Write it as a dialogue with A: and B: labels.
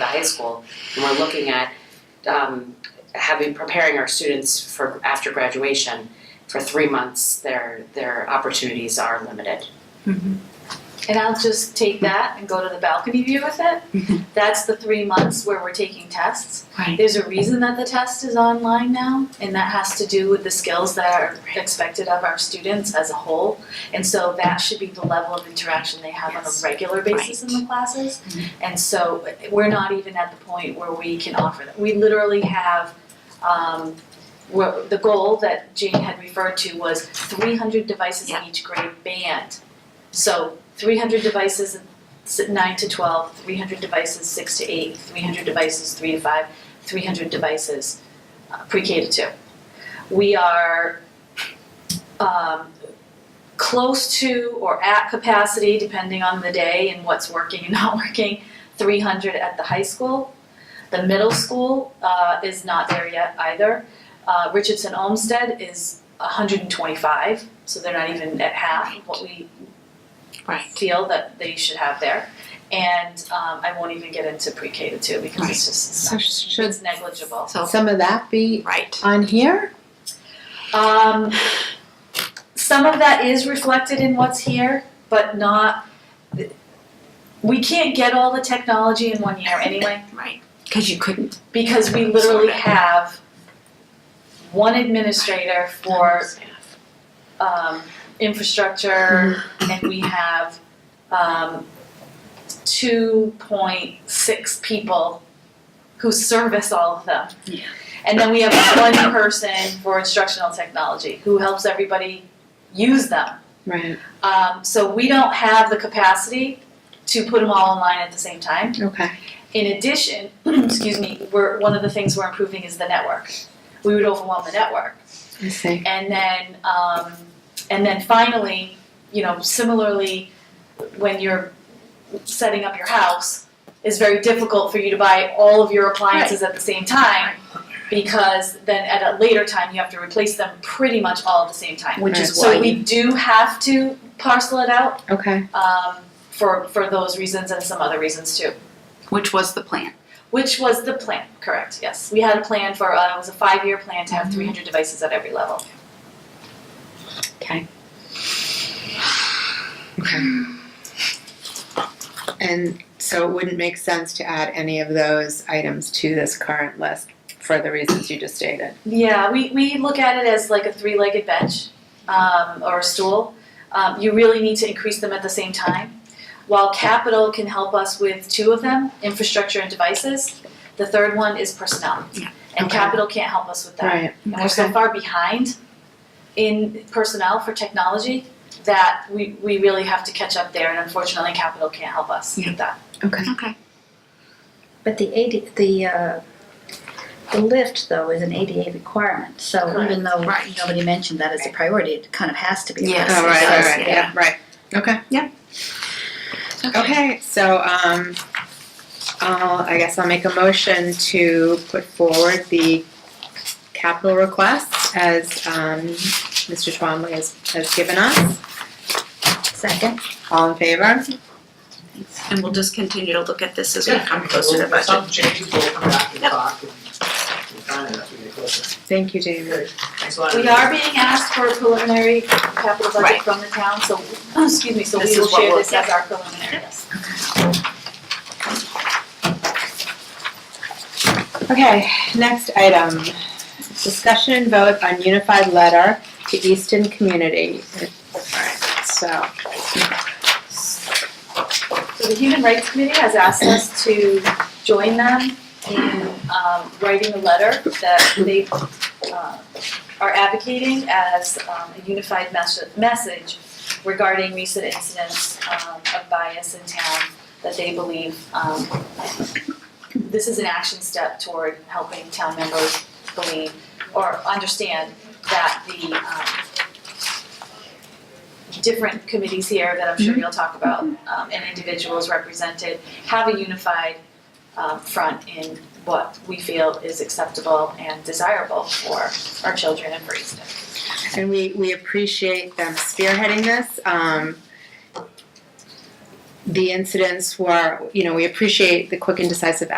A: the high school, and we're looking at um, having preparing our students for after graduation. For three months, their their opportunities are limited.
B: And I'll just take that and go to the balcony view with it. That's the three months where we're taking tests.
C: Right.
B: There's a reason that the test is online now, and that has to do with the skills that are expected of our students as a whole. And so that should be the level of interaction they have on a
C: Yes. Mm-hmm.
B: regular basis in the classes. And so we're not even at the point where we can offer that. We literally have, um, wha- the goal that Jane had referred to was three hundred devices in each grade band. So three hundred devices in s- nine to 12, 300 devices six to eight, three hundred devices three to five, three hundred devices uh, pre-K to two. We are um, close to or at capacity, depending on the day and what's working and not working, three hundred at the high school. The middle school uh, is not there yet either. Uh, Richardson Olmsted is hundred and twenty-five, so they're not even at half of what we
C: Right.
B: feel that they should have there. And um, I won't even get into pre-K to two because it's just it's,
C: So
B: not-
C: should
B: it's negligible.
C: so
D: Some of that be
C: right.
D: on here?
B: Um, some of that is reflected in what's here, but not. We can't get all the technology in one year anyway,
C: Right. Because you couldn't.
B: because we literally have one administrator for um, infrastructure, and we have um, two point six people who service all of them.
C: Yeah.
B: And then we have one person for instructional technology who helps everybody use them.
D: Right.
B: Um, so we don't have the capacity to put them all online at the same time.
D: Okay.
B: In addition, excuse me, we're, one of the things we're improving is the network. We would overwhelm the network.
D: I see.
B: And then, um, and then finally, you know, similarly, when you're setting up your house, it's very difficult for you to buy all of your appliances at the same time because then at a later time you have to replace them pretty much all at the same time.
C: Which
D: is
B: So we do have to parcel it out
D: Okay.
B: um, for for those reasons and some other reasons too.
C: Which was the plan.
B: Which was the plan, correct? Yes, we had a plan for uh, it was a five year plan to have 300 devices at every level.
D: Okay. Okay. And so it wouldn't make sense to add any of those items to this current list for the reasons you just stated.
B: Yeah, we, we look at it as like a three legged bench um, or a stool. Um, you really need to increase them at the same time. While capital can help us with two of them, infrastructure and devices, the third one is personnel.
C: Yeah.
B: And
D: Okay.
B: capital can't help us with that.
D: Right.
B: And we're so
D: Okay.
B: far behind in personnel for technology that we, we really have to catch up there. And unfortunately, capital can't help us
C: Yeah.
B: with that.
D: Okay.
C: Okay.
E: But the AD, the, uh, the lift though is an ADA requirement, so even though
C: Right.
E: nobody mentioned that as a priority, it kind of has to be.
C: Yes.
D: All Oh, right. All right.
C: Yeah.
D: Yeah. Right. Okay. Okay, so um, I'll, I guess I'll make a motion to put forward the capital request as um, Mr. Twombly has, has given us.
E: Second,
D: All in favor?
C: And we'll just continue to look at this as we
F: Yeah,
C: come closer to
F: we'll- if
C: budget.
F: Something changes, we'll come back and
C: Yep.
F: talk and and find out if we get closer.
D: Thank you, David.
F: Thanks a lot.
B: We are being asked for a preliminary capital budget
C: Right.
B: from the town, so, excuse me, so we
C: This
B: will
C: is what
B: share
C: we'll-
B: this as our preliminary, yes.
D: Okay, next item. Discussion and vote on unified letter to Easton Community. Alright, so,
B: So the Human Rights Committee has asked us to join them in um, writing a letter that they uh, are advocating as um, a unified mes- message regarding recent incidents um, of bias in town that they believe um, this is an action step toward helping town members believe or understand that the um, different committees here that I'm sure you'll talk about, um, and individuals represented, have a unified, um, front in what we feel is acceptable and desirable for our children and for Easton.
D: and we, we appreciate them spearheading this. Um, The incidents were, you know, we appreciate the quick and decisive